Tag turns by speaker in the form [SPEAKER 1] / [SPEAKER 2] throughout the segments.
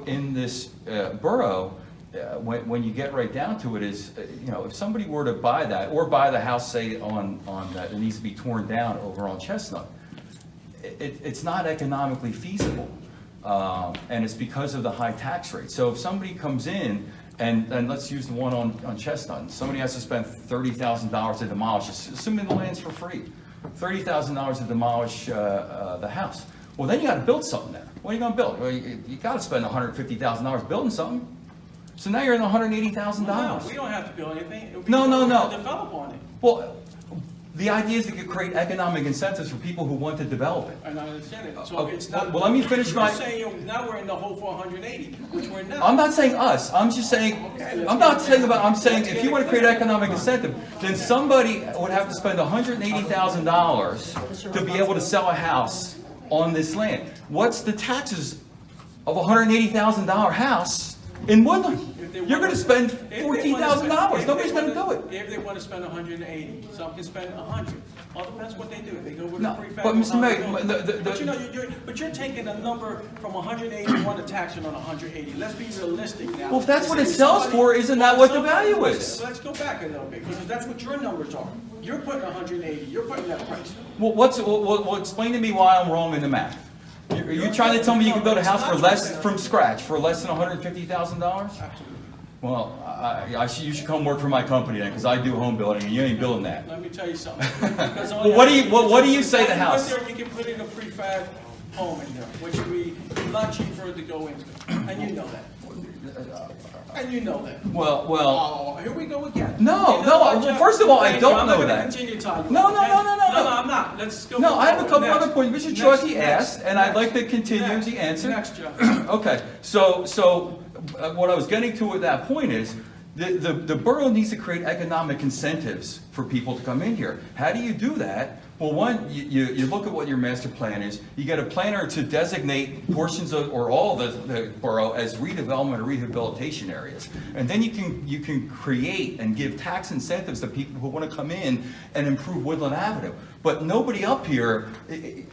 [SPEAKER 1] in this uh, borough, uh, when, when you get right down to it is, uh, you know, if somebody were to buy that or buy the house, say, on, on, that it needs to be torn down over on Chestnut, it, it's not economically feasible. Um, And it's because of the high tax rate. So if somebody comes in, and, and let's use the one on, on Chestnut, and somebody has to spend thirty thousand dollars to demolish, ass- assuming the land's for free, thirty thousand dollars to demolish uh, uh, the house. Well, then you gotta build something there. What are you gonna build? Well, you, you gotta spend hundred and fifty thousand dollars building something. So now you're in hundred and eighty thousand
[SPEAKER 2] No,
[SPEAKER 1] dollars.
[SPEAKER 2] we don't have to build anything. It would be-
[SPEAKER 1] No, no, no.
[SPEAKER 2] Develop on it.
[SPEAKER 1] Well, the idea is to create economic incentives for people who want to develop it.
[SPEAKER 2] And I understand it, so
[SPEAKER 1] Oh,
[SPEAKER 2] it's not.
[SPEAKER 1] well, let me finish my-
[SPEAKER 2] You're saying you're- now we're in the hole for hundred and eighty, which we're not.
[SPEAKER 1] I'm not saying us, I'm just saying,
[SPEAKER 2] Okay, let's
[SPEAKER 1] I'm not
[SPEAKER 2] get it.
[SPEAKER 1] saying about, I'm saying
[SPEAKER 2] Let's
[SPEAKER 1] if
[SPEAKER 2] get
[SPEAKER 1] you
[SPEAKER 2] it
[SPEAKER 1] wanna create
[SPEAKER 2] clear.
[SPEAKER 1] economic incentive, then somebody would have to spend hundred and eighty thousand dollars to be able to sell a house on this land. What's the taxes of a hundred and eighty thousand dollar house in Woodland?
[SPEAKER 2] If they
[SPEAKER 1] You're
[SPEAKER 2] wanna-
[SPEAKER 1] gonna spend
[SPEAKER 2] if they wanna
[SPEAKER 1] fourteen thousand dollars,
[SPEAKER 2] spend- if
[SPEAKER 1] nobody's
[SPEAKER 2] they
[SPEAKER 1] gonna do
[SPEAKER 2] wanna-
[SPEAKER 1] it.
[SPEAKER 2] If they wanna spend hundred and eighty, some can spend a hundred. All depends what they do, they go with
[SPEAKER 1] No,
[SPEAKER 2] a prefab.
[SPEAKER 1] but
[SPEAKER 2] or
[SPEAKER 1] Mr. Mayor,
[SPEAKER 2] non-building.
[SPEAKER 1] the- the-
[SPEAKER 2] But
[SPEAKER 1] the-
[SPEAKER 2] you know, you're- you're, but you're taking a number from hundred and eighty, you want to tax it on hundred and eighty, let's be realistic now.
[SPEAKER 1] Well, if that's what it
[SPEAKER 2] Say
[SPEAKER 1] sells
[SPEAKER 2] somebody-
[SPEAKER 1] for, isn't that
[SPEAKER 2] well,
[SPEAKER 1] what the
[SPEAKER 2] somebody-
[SPEAKER 1] value is?
[SPEAKER 2] listen, Let's go back a little bit, because that's what your numbers are. You're putting hundred and eighty, you're putting that price.
[SPEAKER 1] Well, what's, well, well, well, explain to me why I'm wrong in the math. You- Are you trying to tell me you can build a house for less, from scratch, for less than hundred and fifty thousand dollars?
[SPEAKER 2] Absolutely.
[SPEAKER 1] Well, I, I should, you should come work for my company then, because I do home building, and you ain't building that.
[SPEAKER 2] Let me tell you something. Because all
[SPEAKER 1] Well, what do you-
[SPEAKER 2] have-
[SPEAKER 1] what- what do you say the
[SPEAKER 2] If you
[SPEAKER 1] house?
[SPEAKER 2] went there, You can put in a prefab home in there, which would be a lot cheaper to go into, and you know that. And you know that.
[SPEAKER 1] Well, well,
[SPEAKER 2] Oh, here we go again.
[SPEAKER 1] No,
[SPEAKER 2] You
[SPEAKER 1] no,
[SPEAKER 2] know what,
[SPEAKER 1] well,
[SPEAKER 2] Jeff?
[SPEAKER 1] first of all, I
[SPEAKER 2] Thank
[SPEAKER 1] don't
[SPEAKER 2] you. I'm not
[SPEAKER 1] know
[SPEAKER 2] gonna
[SPEAKER 1] that.
[SPEAKER 2] Continue talking.
[SPEAKER 1] No, no,
[SPEAKER 2] okay?
[SPEAKER 1] no, no, no,
[SPEAKER 2] No,
[SPEAKER 1] no.
[SPEAKER 2] I'm not, let's go.
[SPEAKER 1] no, I have a couple
[SPEAKER 2] Next.
[SPEAKER 1] other points. Mr.
[SPEAKER 2] Next,
[SPEAKER 1] Chouaki
[SPEAKER 2] next,
[SPEAKER 1] asked, and I'd
[SPEAKER 2] next,
[SPEAKER 1] like to continue
[SPEAKER 2] next,
[SPEAKER 1] the answer.
[SPEAKER 2] Next, Jeff.
[SPEAKER 1] Okay, so, so uh, what I was getting to with that point is, the, the, the borough needs to create economic incentives for people to come in here. How do you do that? Well, one, you, you, you look at what your master plan is, you get a planner to designate portions of, or all the, the borough as redevelopment or rehabilitation areas. And then you can, you can create and give tax incentives to people who wanna come in and improve Woodland Avenue. But nobody up here i- i-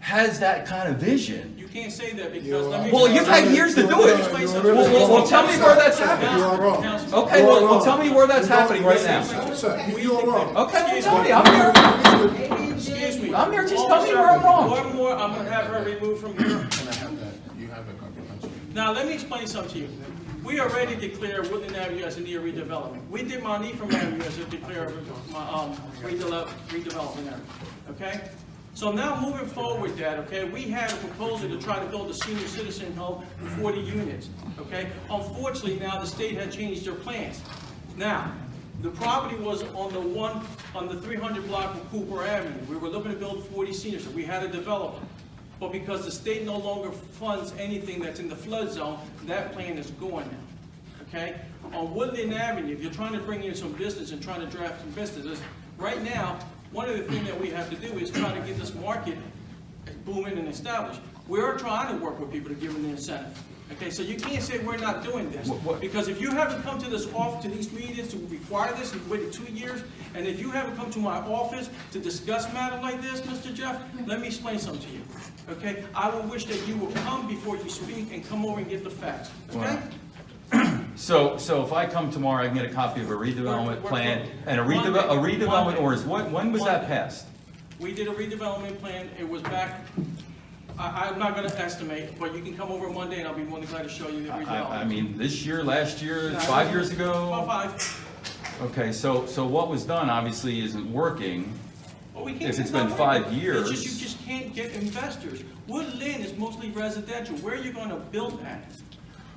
[SPEAKER 1] has that kind of vision.
[SPEAKER 2] You can't say that because let me.
[SPEAKER 1] Well, you've had years to do it.
[SPEAKER 2] Explain
[SPEAKER 1] Well,
[SPEAKER 2] something.
[SPEAKER 1] well, well, tell me where that's happening.
[SPEAKER 3] You are wrong.
[SPEAKER 2] Councilman-
[SPEAKER 1] Okay, well, well, tell me where that's happening right now.
[SPEAKER 3] Sir, you are wrong.
[SPEAKER 1] Okay, well, tell me, I'm here.
[SPEAKER 2] Excuse me.
[SPEAKER 1] I'm there, just
[SPEAKER 2] One
[SPEAKER 1] tell me where I'm wrong.
[SPEAKER 2] One more, I'm gonna have her removed from here.
[SPEAKER 4] Can I have that? You have a comprehensive.
[SPEAKER 2] Now, let me explain something to you. We already declared Woodland Avenue as an area redevelopment. We did Montefiore Avenue as a declared, um, redele- redevelopment area, okay? So now moving forward with that, okay, we had a proposal to try to build a senior citizen home with forty units, okay? Unfortunately, now the state had changed their plans. Now, the property was on the one, on the three hundred block of Cooper Avenue. We were looking to build forty seniors, we had a developer. But because the state no longer funds anything that's in the flood zone, that plan is going now, okay? On Woodland Avenue, if you're trying to bring in some business and trying to draft some businesses, right now, one of the things that we have to do is try to get this market booming and established. We're trying to work with people to give them the incentive, okay? So you can't say we're not doing this.
[SPEAKER 1] What- what-
[SPEAKER 2] Because if you haven't come to this off, to these meetings to require this, you've waited two years, and if you haven't come to my office to discuss matter like this, Mr. Jeff, let me explain something to you, okay? I would wish that you would come before you speak and come over and get the facts, okay?
[SPEAKER 1] Wow. So, so if I come tomorrow, I can get a copy of a redevelopment plan and a redevelop, a redevelopment ordinance. When, when was that passed?
[SPEAKER 2] We did a redevelopment plan, it was back, I, I'm not gonna estimate, but you can come over Monday and I'll be more than glad to show you the
[SPEAKER 1] I, I- I
[SPEAKER 2] redevelopment.
[SPEAKER 1] mean, this year, last year, five years
[SPEAKER 2] About
[SPEAKER 1] ago?
[SPEAKER 2] five,
[SPEAKER 1] Okay, so, so what was done obviously isn't working.
[SPEAKER 2] Well, we can't
[SPEAKER 1] If it's
[SPEAKER 2] say
[SPEAKER 1] been
[SPEAKER 2] not
[SPEAKER 1] five
[SPEAKER 2] working. It's just,
[SPEAKER 1] years.
[SPEAKER 2] you just can't get investors. Woodland is mostly residential, where are you gonna build that?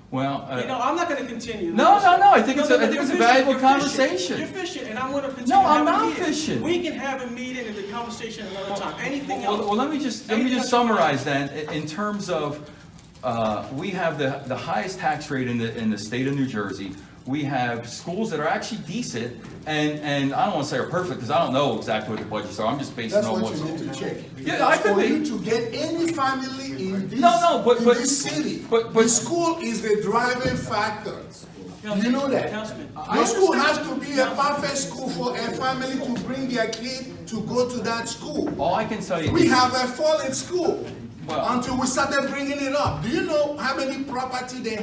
[SPEAKER 1] Well,
[SPEAKER 2] You know,
[SPEAKER 1] uh,
[SPEAKER 2] I'm not gonna continue.
[SPEAKER 1] No,
[SPEAKER 2] this.
[SPEAKER 1] no, no, I think it's a- I think
[SPEAKER 2] you're
[SPEAKER 1] it's a
[SPEAKER 2] fishing,
[SPEAKER 1] valuable
[SPEAKER 2] you're fishing,
[SPEAKER 1] conversation.
[SPEAKER 2] You're fishing, and I'm gonna continue.
[SPEAKER 1] No, I'm
[SPEAKER 2] having a
[SPEAKER 1] not
[SPEAKER 2] meeting.
[SPEAKER 1] fishing.
[SPEAKER 2] We can have a meeting and the conversation another time, anything
[SPEAKER 1] well, well,
[SPEAKER 2] else.
[SPEAKER 1] let me just, let me just summarize then, i- in terms of, uh, we have the, the highest tax rate in the, in the state of New Jersey. We have schools that are actually decent, and, and I don't wanna say are perfect, because I don't know exactly what the budgets are, I'm just basing
[SPEAKER 3] That's
[SPEAKER 1] on
[SPEAKER 3] what
[SPEAKER 1] what's.
[SPEAKER 3] you need to check.
[SPEAKER 1] Yeah, I could
[SPEAKER 3] For
[SPEAKER 1] be.
[SPEAKER 3] you to get any family in this,
[SPEAKER 1] No, no, but-
[SPEAKER 3] in
[SPEAKER 1] but-
[SPEAKER 3] this city,
[SPEAKER 1] but- but-
[SPEAKER 3] the school is the driving factor. You
[SPEAKER 2] Councilman,
[SPEAKER 3] know that.
[SPEAKER 2] Councilman,
[SPEAKER 3] Your school has to be a perfect school for a family to bring their kid to go to that school.
[SPEAKER 1] All I can tell you.
[SPEAKER 3] We
[SPEAKER 1] is-
[SPEAKER 3] have a fallen school.
[SPEAKER 1] Well-
[SPEAKER 3] until we started bringing it up. Do you know how many property they